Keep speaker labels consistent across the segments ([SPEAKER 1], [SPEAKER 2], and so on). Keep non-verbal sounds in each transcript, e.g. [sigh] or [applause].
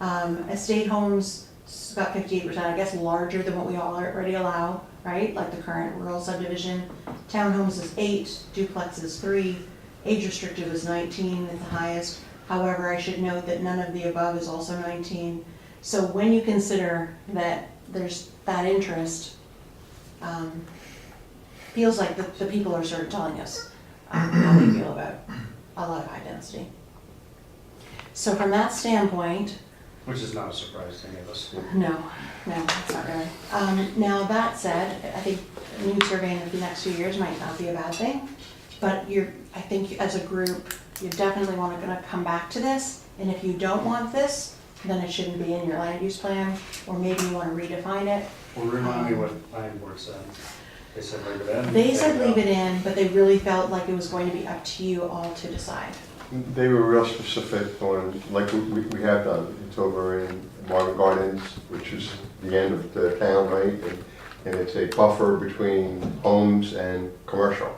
[SPEAKER 1] Um, estate homes, it's about fifty-eight percent, I guess, larger than what we all already allow, right? Like the current rural subdivision. Townhomes is eight, duplex is three, age restrictive is nineteen at the highest. However, I should note that none of the above is also nineteen. So when you consider that there's that interest, um, feels like the, the people are sort of telling us um, how they feel about a lot of high density. So from that standpoint,
[SPEAKER 2] Which is not a surprise to any of us.
[SPEAKER 1] no, no, it's not really. Um, now, that said, I think new surveying of the next few years might not be a bad thing, but you're, I think as a group, you definitely wanna gonna come back to this, and if you don't want this, then it shouldn't be in your land use plan, or maybe you wanna redefine it.
[SPEAKER 2] Well, remind me what planning board said. They said leave it in.
[SPEAKER 1] They said leave it in, but they really felt like it was going to be up to you all to decide.
[SPEAKER 3] They were real specific on, like, we, we we have done, it's over in Marvin Gardens, which is the end of the town, right? And- And it's a buffer between homes and commercial.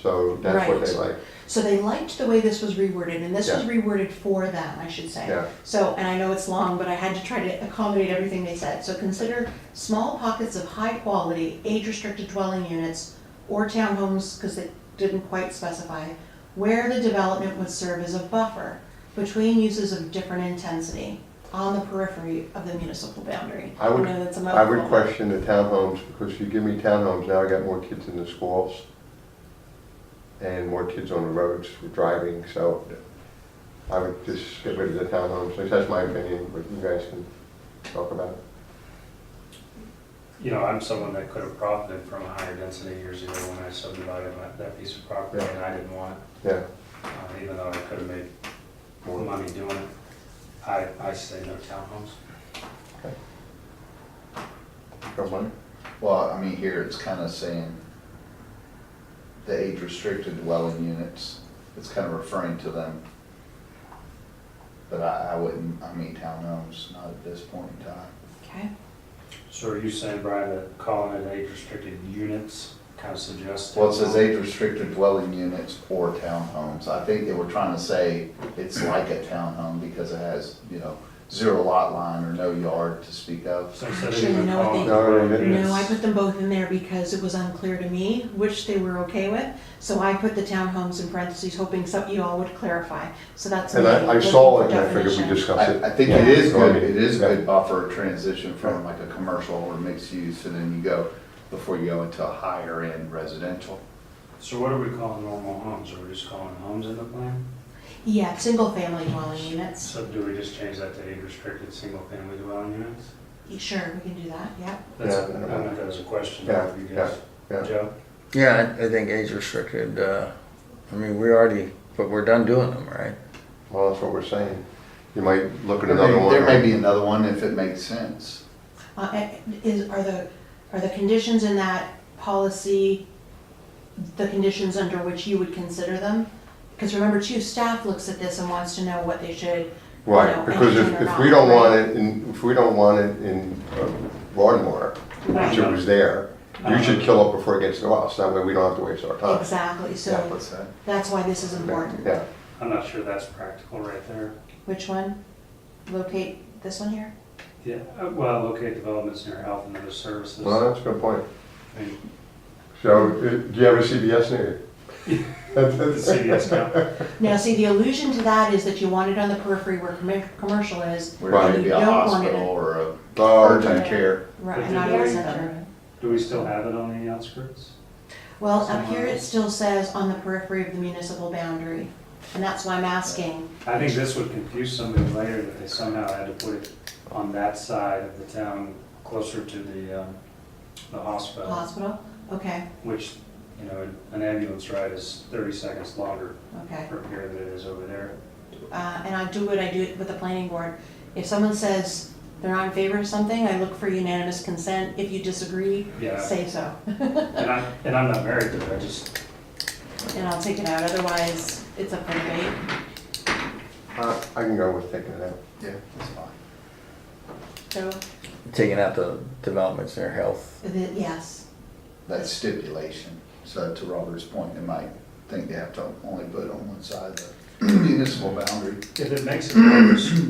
[SPEAKER 3] So that's what they like.
[SPEAKER 1] So they liked the way this was reworded, and this was
[SPEAKER 3] Yeah.
[SPEAKER 1] reworded for them, I should say.
[SPEAKER 3] Yeah.
[SPEAKER 1] So, and I know it's long, but I had to try to accommodate everything they said. So consider small pockets of high-quality, age-restricted dwelling units or townhomes, because they didn't quite specify, where the development would serve as a buffer between uses of different intensity on the periphery of the municipal boundary.
[SPEAKER 3] I would-
[SPEAKER 1] know that's a
[SPEAKER 3] I would
[SPEAKER 1] mouthful.
[SPEAKER 3] question the townhomes, because if you give me townhomes, now I got more kids in the schools and more kids on the roads for driving, so I would just get rid of the townhomes. At least That's my opinion, but you guys can talk about it.
[SPEAKER 2] You know, I'm someone that could have profited from a higher density years ago when I subdivided my- that piece of property and I didn't want it,
[SPEAKER 3] Yeah.
[SPEAKER 2] uh, even though I could have made more money doing it. I, I say no townhomes.
[SPEAKER 3] Don't mind.
[SPEAKER 4] Well, I mean, here it's kind of saying the age-restricted dwelling units, it's kind of referring to them. But I, I wouldn't, I mean, townhomes, not at this point in time.
[SPEAKER 1] Okay,
[SPEAKER 2] So are you saying, Brian, that calling it age restricted units kind of suggests?
[SPEAKER 4] Well, it says
[SPEAKER 2] townhomes?
[SPEAKER 4] age-restricted dwelling units or townhomes. I think they were trying to say it's like a townhome because it has, you know, zero lot line or no yard to speak of.
[SPEAKER 2] So instead of
[SPEAKER 1] Actually,
[SPEAKER 2] even
[SPEAKER 1] you know what they-
[SPEAKER 2] calling it dwelling
[SPEAKER 3] No, they didn't.
[SPEAKER 2] units-
[SPEAKER 1] No, I put them both in there because it was unclear to me which they were okay with. So I put the townhomes in parentheses, hoping some, you all would clarify. So that's.
[SPEAKER 3] And
[SPEAKER 1] me
[SPEAKER 3] I, I
[SPEAKER 1] looking
[SPEAKER 3] saw
[SPEAKER 1] for
[SPEAKER 3] it, and I figured
[SPEAKER 1] definition.
[SPEAKER 3] we discussed it.
[SPEAKER 4] I, I think
[SPEAKER 3] Yeah.
[SPEAKER 4] it is
[SPEAKER 3] So, I
[SPEAKER 4] good,
[SPEAKER 3] mean,
[SPEAKER 4] it is a
[SPEAKER 3] yeah.
[SPEAKER 4] good buffer transition from like a commercial or mixed use, and then you go, before you go into a higher end residential.
[SPEAKER 2] So what are we calling normal homes? Are we just calling homes in the plan?
[SPEAKER 1] Yeah, single family dwelling units.
[SPEAKER 2] So do we just change that to age restricted single family dwelling units?
[SPEAKER 1] Sure, we can do that, yeah.
[SPEAKER 2] That's, I
[SPEAKER 3] Yeah.
[SPEAKER 2] meant that as a question
[SPEAKER 3] Yeah,
[SPEAKER 2] for you guys.
[SPEAKER 3] yeah, yeah.
[SPEAKER 2] Joe?
[SPEAKER 5] Yeah, I, I think age restricted. Uh, I mean, we already, but we're done doing them, right?
[SPEAKER 3] Well, that's what we're saying. You might look at
[SPEAKER 4] There
[SPEAKER 3] another
[SPEAKER 4] may,
[SPEAKER 3] one.
[SPEAKER 4] there may be another one if it makes sense.
[SPEAKER 1] Uh, and Is, are the, are the conditions in that policy the conditions under which you would consider them? Because remember too, staff looks at this and wants to know what they should. you know,
[SPEAKER 3] Right, because
[SPEAKER 1] entertain
[SPEAKER 3] if,
[SPEAKER 1] or
[SPEAKER 3] if
[SPEAKER 1] not,
[SPEAKER 3] we don't
[SPEAKER 1] right?
[SPEAKER 3] want it in, if we don't want it in uh, Broadmoor,
[SPEAKER 1] Right.
[SPEAKER 3] which it was there, you should kill it before it gets to us. That way we don't have to waste our time.
[SPEAKER 1] Exactly, so
[SPEAKER 4] What's that?
[SPEAKER 1] that's why this is important.
[SPEAKER 3] Yeah,
[SPEAKER 2] I'm not sure that's practical right there.
[SPEAKER 1] Which one? Locate this one here?
[SPEAKER 2] Yeah, uh, well, locate developments near health and other services.
[SPEAKER 3] well, that's a good point.
[SPEAKER 2] I mean,
[SPEAKER 3] So, uh, do you have a CBS [laughs] near you? That's-
[SPEAKER 2] The
[SPEAKER 3] that's-
[SPEAKER 2] CVS now.
[SPEAKER 1] Now, see, the allusion to that is that you want it on the periphery where commer- commercial is,
[SPEAKER 4] Where
[SPEAKER 3] Right.
[SPEAKER 4] it could be a
[SPEAKER 1] You don't want
[SPEAKER 4] hospital
[SPEAKER 1] it.
[SPEAKER 4] or a
[SPEAKER 3] Oh,
[SPEAKER 4] urgent
[SPEAKER 3] okay.
[SPEAKER 4] care.
[SPEAKER 1] right,
[SPEAKER 2] But
[SPEAKER 1] and not
[SPEAKER 2] do
[SPEAKER 1] in the
[SPEAKER 2] they-
[SPEAKER 1] center.
[SPEAKER 2] Do we still have it on the outskirts?
[SPEAKER 1] Well, up here
[SPEAKER 2] Somewhere
[SPEAKER 1] it
[SPEAKER 2] else.
[SPEAKER 1] still says on the periphery of the municipal boundary, and that's why I'm asking.
[SPEAKER 2] I think this would confuse somebody later that they somehow had to put it on that side of the town, closer to the, um, the hospital,
[SPEAKER 1] Hospital? Okay,
[SPEAKER 2] which, you know, an ambulance ride is thirty seconds longer
[SPEAKER 1] okay.
[SPEAKER 2] from here than it is over there.
[SPEAKER 1] Uh, and I do what I do it with the planning board. If someone says they're not in favor of something, I look for unanimous consent. If you disagree,
[SPEAKER 2] Yeah.
[SPEAKER 1] say so. [laughs]
[SPEAKER 2] And I, and I'm not married to it, I just,
[SPEAKER 1] And I'll take it out, otherwise it's up for debate.
[SPEAKER 3] Uh, I can go with taking it out.
[SPEAKER 4] Yeah, that's fine.
[SPEAKER 1] So,
[SPEAKER 5] Taking out the developments in their health.
[SPEAKER 1] the- yes.
[SPEAKER 4] That's stipulation. So to Robert's point, they might think they have to only put it on one side of the municipal boundary.
[SPEAKER 2] if it makes it worse,